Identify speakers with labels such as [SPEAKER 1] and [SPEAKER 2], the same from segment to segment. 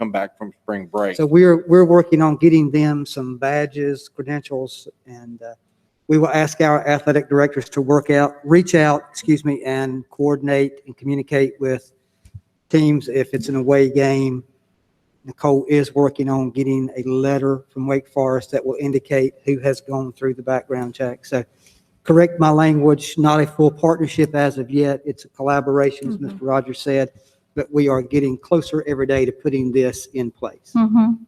[SPEAKER 1] come back from spring break.
[SPEAKER 2] So we're, we're working on getting them some badges, credentials, and uh, we will ask our athletic directors to work out, reach out, excuse me, and coordinate and communicate with teams if it's an away game. Nicole is working on getting a letter from Wake Forest that will indicate who has gone through the background check. So correct my language, not a full partnership as of yet. It's a collaboration, as Mr. Rogers said, but we are getting closer every day to putting this in place.
[SPEAKER 3] Mhm.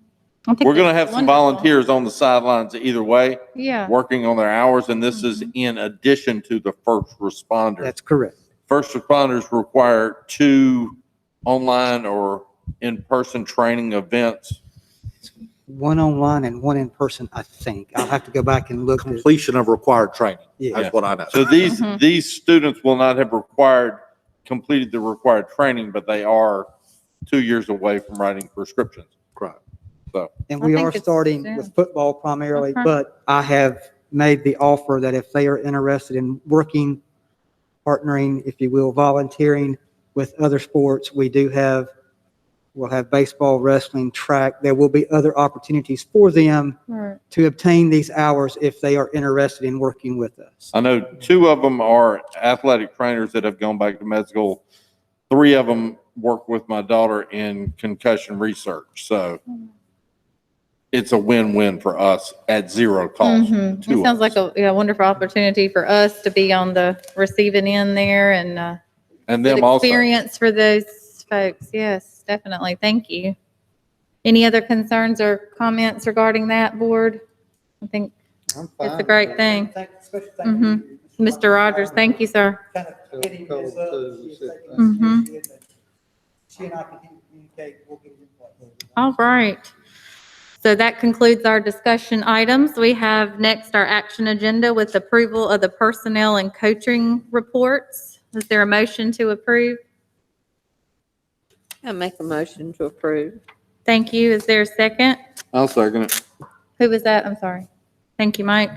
[SPEAKER 3] I think
[SPEAKER 1] We're going to
[SPEAKER 3] that's
[SPEAKER 1] have some
[SPEAKER 3] wonderful.
[SPEAKER 1] volunteers on the sidelines either way,
[SPEAKER 3] Yeah.
[SPEAKER 1] working on their hours, and this is in addition to the first responders.
[SPEAKER 2] That's correct.
[SPEAKER 1] First responders require two online or in-person training events.
[SPEAKER 2] One online and one in person, I think. I'll have to go back and look. at-
[SPEAKER 4] completion of required training.
[SPEAKER 2] Yeah,
[SPEAKER 4] That's what I know.
[SPEAKER 1] So these,
[SPEAKER 3] Mhm.
[SPEAKER 1] these students will not have required, completed the required training, but they are two years away from writing prescriptions.
[SPEAKER 4] Correct.
[SPEAKER 2] and
[SPEAKER 3] I
[SPEAKER 2] we
[SPEAKER 3] think
[SPEAKER 2] are
[SPEAKER 3] it's
[SPEAKER 2] starting
[SPEAKER 3] soon.
[SPEAKER 2] with football primarily,
[SPEAKER 3] Okay.
[SPEAKER 2] but I have made the offer that if they are interested in working, partnering, if you will, volunteering with other sports, we do have, we'll have baseball, wrestling, track. There will be other opportunities for them
[SPEAKER 3] Right.
[SPEAKER 2] to obtain these hours if they are interested in working with us.
[SPEAKER 1] I know two of them are athletic trainers that have gone back to med school. Three of them work with my daughter in concussion research, so it's a win-win for us at zero cost.
[SPEAKER 3] Mhm.
[SPEAKER 1] to
[SPEAKER 3] It sounds
[SPEAKER 1] us.
[SPEAKER 3] like a yeah, wonderful opportunity for us to be on the receiving end there and uh,
[SPEAKER 1] And
[SPEAKER 3] good
[SPEAKER 1] them also.
[SPEAKER 3] experience for those folks. Yes, definitely. Thank you. Any other concerns or comments regarding that, board? I think it's a great thing. Mhm. Mr. Rogers, thank you, sir.
[SPEAKER 2] kind of getting this up. She is taking
[SPEAKER 3] Mhm.
[SPEAKER 2] initiative, and She and I can communicate, we'll get it in place.
[SPEAKER 3] All right. So that concludes our discussion items. We have next our action agenda with approval of the personnel and coaching reports. Is there a motion to approve?
[SPEAKER 5] I make a motion to approve.
[SPEAKER 3] Thank you. Is there a second?
[SPEAKER 1] I'll second it.
[SPEAKER 3] Who was that? I'm sorry. Thank you, Mike.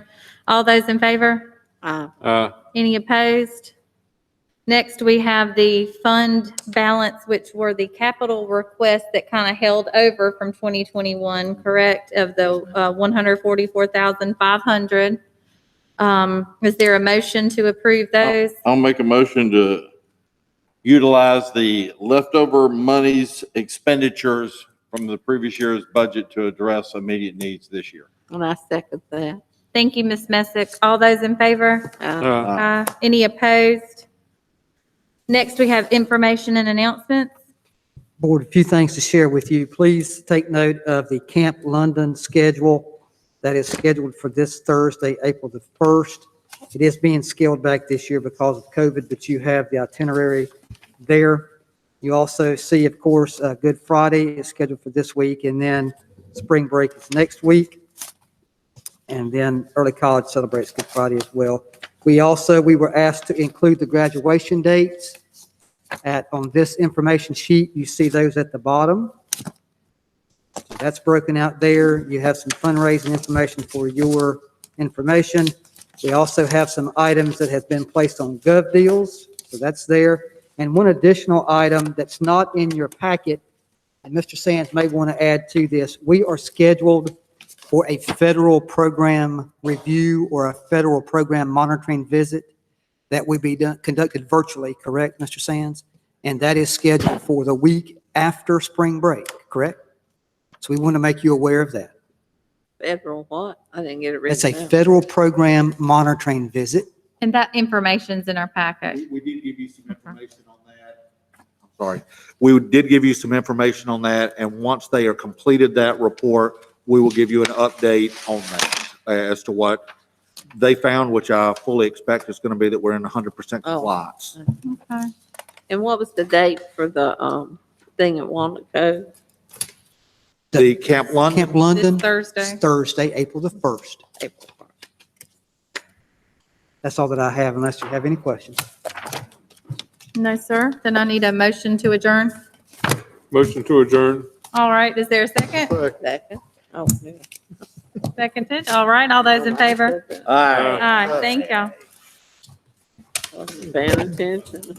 [SPEAKER 3] All those in favor?
[SPEAKER 5] Aye.
[SPEAKER 6] Uh,
[SPEAKER 3] Any opposed? Next, we have the fund balance, which were the capital requests that kind of held over from 2021, correct, of the uh, 144,500. Um, Is there a motion to approve those?
[SPEAKER 1] I'll make a motion to utilize the leftover monies expenditures from the previous year's budget to address immediate needs this year.
[SPEAKER 5] And I second that. Um,
[SPEAKER 3] Thank you, Ms. Messick. All those in favor?
[SPEAKER 5] Aye.
[SPEAKER 3] Aye. Any opposed? Next, we have information and announcements.
[SPEAKER 2] Board, a few things to share with you. Please take note of the Camp London schedule that is scheduled for this Thursday, April the 1st. It is being scaled back this year because of COVID, but you have the itinerary there. You also see, of course, uh, Good Friday is scheduled for this week, and then spring break is next week. And then early college celebrates Good Friday as well. We also, we were asked to include the graduation dates at, on this information sheet, you see those at the bottom. So That's broken out there. You have some fundraising information for your information. We also have some items that have been placed on Gov Deals, so that's there. And one additional item that's not in your packet, and Mr. Sands may want to add to this, we are scheduled for a federal program review or a federal program monitoring visit that would be done, conducted virtually, correct, Mr. Sands? And that is scheduled for the week after spring break, correct? So we want to make you aware of that.
[SPEAKER 5] Federal what? I didn't get it
[SPEAKER 2] It's a
[SPEAKER 5] written down.
[SPEAKER 2] federal program monitoring visit.
[SPEAKER 3] And that information's in our packet.
[SPEAKER 4] We did give you some information on that. I'm sorry. We did give you some information on that, and once they are completed that report, we will give you an update on that as to what they found, which I fully expect is going to be that we're in hundred percent
[SPEAKER 5] Oh.
[SPEAKER 4] compliance.
[SPEAKER 3] Okay.
[SPEAKER 5] And what was the date for the, um, thing at Wanaco?
[SPEAKER 4] The Camp London,
[SPEAKER 2] Camp London,
[SPEAKER 3] This Thursday.
[SPEAKER 2] it's Thursday, April the 1st.
[SPEAKER 5] April first?
[SPEAKER 2] That's all that I have unless you have any questions.
[SPEAKER 3] No, sir. Then I need a motion to adjourn.
[SPEAKER 6] Motion to adjourn.
[SPEAKER 3] All right, is there a second?
[SPEAKER 5] Second. Oh, yeah.
[SPEAKER 3] Seconded. All right, all those in favor?
[SPEAKER 4] All right.
[SPEAKER 3] Aye, thank y'all.
[SPEAKER 5] Wasn't paying attention.